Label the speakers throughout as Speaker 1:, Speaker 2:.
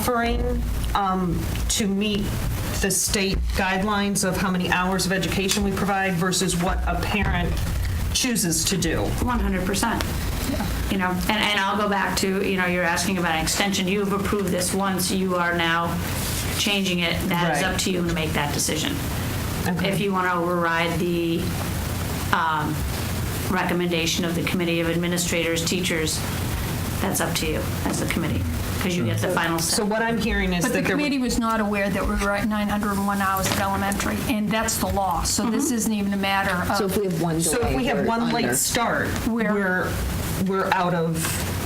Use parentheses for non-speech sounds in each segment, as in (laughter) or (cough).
Speaker 1: offering um, to meet the state guidelines of how many hours of education we provide versus what a parent chooses to do.
Speaker 2: One hundred percent. You know, and, and I'll go back to, you know, you're asking about an extension. You've approved this once, you are now changing it. That is
Speaker 1: Right.
Speaker 2: up to you to make that decision.
Speaker 1: Okay.
Speaker 2: If you want to override the um, recommendation of the Committee of Administrators, Teachers, that's up to you as the committee, because you get the final say.
Speaker 1: So what I'm hearing is
Speaker 3: But the
Speaker 1: that there,
Speaker 3: committee was not aware that we were at 901 hours at elementary, and that's the law. So this isn't even a matter
Speaker 4: So
Speaker 3: of,
Speaker 4: if we have one
Speaker 1: so if we have one late start,
Speaker 3: We're-
Speaker 1: we're, we're out of,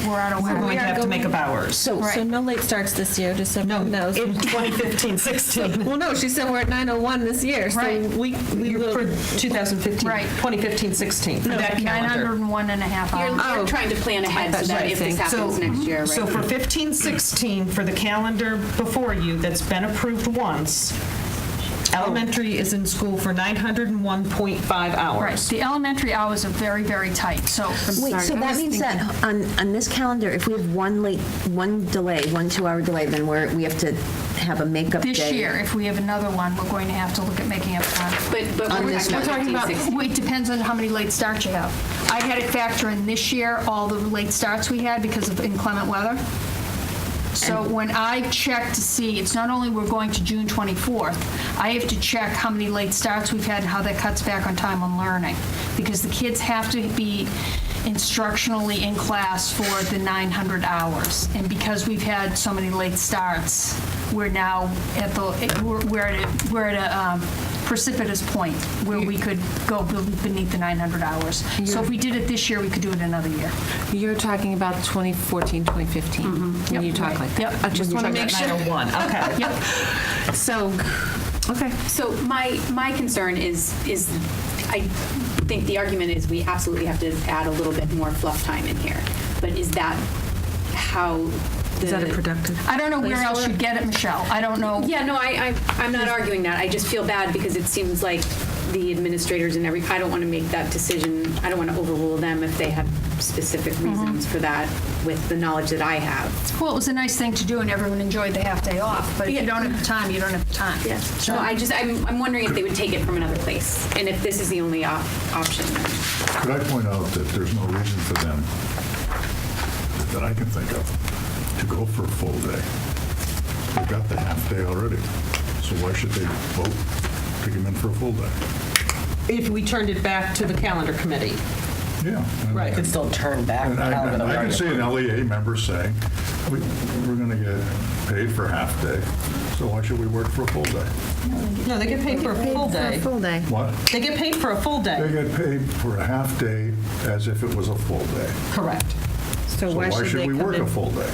Speaker 3: we're out of
Speaker 1: we're
Speaker 3: whack.
Speaker 1: going to have to make up hours.
Speaker 4: So,
Speaker 5: So no late starts this year, just so
Speaker 1: No,
Speaker 5: everyone knows.
Speaker 1: in 2015,
Speaker 3: (laughs)
Speaker 1: 16.
Speaker 5: Well, no, she said we're at 901 this year, so
Speaker 3: Right.
Speaker 5: we, we
Speaker 1: You're For
Speaker 5: will.
Speaker 1: 2015,
Speaker 3: Right.
Speaker 1: 2015, 16, for that calendar.
Speaker 3: 901 and a half
Speaker 6: You're,
Speaker 3: hours.
Speaker 6: you're trying to plan ahead so that if this happens next year, right?
Speaker 1: So for 15, 16, for the calendar before you that's been approved once, elementary is in school for 901.5
Speaker 3: Right,
Speaker 1: hours.
Speaker 3: the elementary hours are very, very tight, so.
Speaker 4: wait, so that means that on, on this calendar, if we have one late, one delay, one two-hour delay, then we're, we have to have a makeup day.
Speaker 3: This year, if we have another one, we're going to have to look at making up time.
Speaker 6: But, but we're
Speaker 4: this
Speaker 3: We're talking
Speaker 6: talking about
Speaker 3: about,
Speaker 6: 15, 16.
Speaker 3: it depends on how many late starts you have. I had to factor in this year, all the late starts we had because of inclement weather. So when I check to see, it's not only we're going to June 24th, I have to check how many late starts we've had and how that cuts back on time on learning. Because the kids have to be instructionally in class for the 900 hours. And because we've had so many late starts, we're now at the, we're- we're at, a- we're at a um, precipitous point where we could go beneath the 900 hours. So if we did it this year, we could do it another year.
Speaker 7: You're talking about 2014, 2015, when you talk like that.
Speaker 3: Yep.
Speaker 7: I just want to make sure.
Speaker 1: 901, okay.
Speaker 7: So, okay.
Speaker 6: So my, my concern is, is, I think the argument is we absolutely have to add a little bit more fluff time in here. But is that how the?
Speaker 7: Is that a productive?
Speaker 3: I don't know where else you'd get it, Michelle. I don't know.
Speaker 6: Yeah, no, I, I, I'm not arguing that. I just feel bad because it seems like the administrators and every, I don't want to make that decision. I don't want to overrule them if they have specific
Speaker 7: Mm-hmm.
Speaker 6: reasons for that with the knowledge that I have.
Speaker 3: Well, it was a nice thing to do, and everyone enjoyed the half day off. But if you
Speaker 6: Yeah.
Speaker 3: don't have the time, you don't have the time.
Speaker 6: So I just, I'm, I'm wondering if they would take it from another place and if this is the only op- option.
Speaker 8: Could I point out that there's no reason for them, that I can think of, to go for a full day? They've got the half day already, so why should they vote, pick them in for a full day?
Speaker 1: If we turned it back to the calendar committee.
Speaker 8: Yeah. and-
Speaker 1: Right.
Speaker 9: could still turn back.
Speaker 8: And I,
Speaker 9: however the
Speaker 8: I can
Speaker 9: market-
Speaker 8: see an LEA member saying, we, we're gonna get paid for half day, so why should we work for a full day?
Speaker 1: No, they get paid for a full day.
Speaker 4: Full day.
Speaker 8: What?
Speaker 1: They get paid for a full
Speaker 8: They
Speaker 1: day.
Speaker 8: get paid for a half day as if it was a full day.
Speaker 1: Correct.
Speaker 8: So why should we work a full day?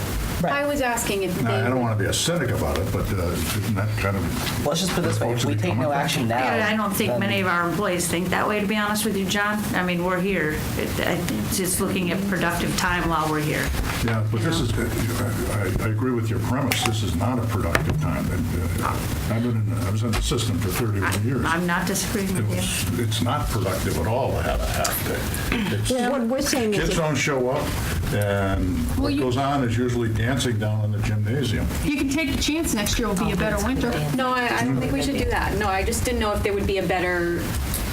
Speaker 6: I was asking if
Speaker 8: Now, I
Speaker 6: they,
Speaker 8: don't want to be a cynic about it, but uh, isn't that kind of...
Speaker 9: Well, Let's just put it this way, if we take no action now.
Speaker 2: Yeah, I don't think
Speaker 9: then-
Speaker 2: many of our employees think that way, to be honest with you, John. I mean, we're here, It- I- it's just looking at productive time while we're here.
Speaker 8: Yeah, but this is, uh, I- I I agree with your premise, this is not a productive time. And, uh, I've been, in- I was in the system for 31 years.
Speaker 2: I'm not disagreeing
Speaker 8: It
Speaker 2: with you.
Speaker 8: was, it's not productive at all to have a half day.
Speaker 4: Yeah,
Speaker 8: It's-
Speaker 4: what we're saying is.
Speaker 8: Kids
Speaker 4: if-
Speaker 8: don't show up, and what goes on is usually dancing down in the gymnasium.
Speaker 3: You can take the chance next year will be a better winter.
Speaker 6: no, I, I don't think we should do that. No, I just didn't know if there would be a better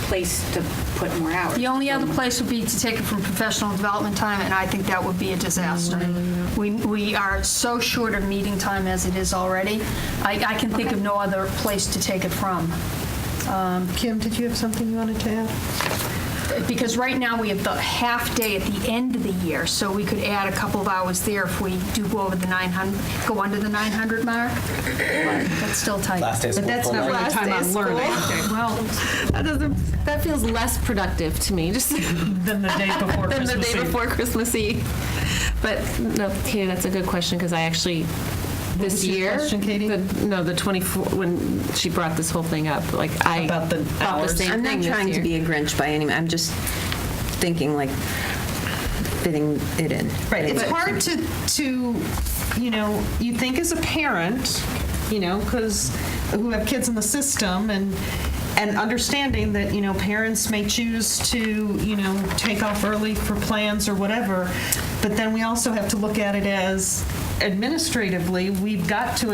Speaker 6: place to put more hours.
Speaker 3: The only other place would be to take it from professional development time, and I think that would be a disaster.
Speaker 6: Mm-hmm.
Speaker 3: We, we are so short of meeting time as it is already. I, I can think of no other place to take it from.
Speaker 1: Kim, did you have something you wanted to add?
Speaker 3: Because right now, we have the half day at the end of the year, so we could add a couple of hours there if we do go over the 900, go under the 900 mark. But That's still tight.
Speaker 9: Last day of school.
Speaker 1: But that's
Speaker 9: full
Speaker 1: not
Speaker 9: day.
Speaker 1: really
Speaker 5: Last
Speaker 1: time
Speaker 5: day of
Speaker 1: on learning
Speaker 3: Okay, well,
Speaker 5: That doesn't, that feels less productive to me, just
Speaker 1: than the day before
Speaker 5: than the
Speaker 1: Christmas
Speaker 5: day
Speaker 1: Eve.
Speaker 5: before Christmas Eve. But no, Katie, that's a good question, because I actually, this
Speaker 1: was your
Speaker 5: year.
Speaker 1: question, Katie?
Speaker 5: the- No, the 24, when she brought this whole thing up, like I.
Speaker 1: About the
Speaker 5: thought
Speaker 1: hours.
Speaker 5: same
Speaker 4: I'm
Speaker 5: thing
Speaker 4: not
Speaker 5: this
Speaker 4: trying to
Speaker 5: year.
Speaker 4: be a Grinch by any, I'm just thinking like fitting it in.
Speaker 1: Right, it's hard to, to, you know, you think as a parent, you know, because who have kids in the system and, and understanding that, you know, parents may choose to, you know, take off early for plans or whatever. But then we also have to look at it as administratively, we've got to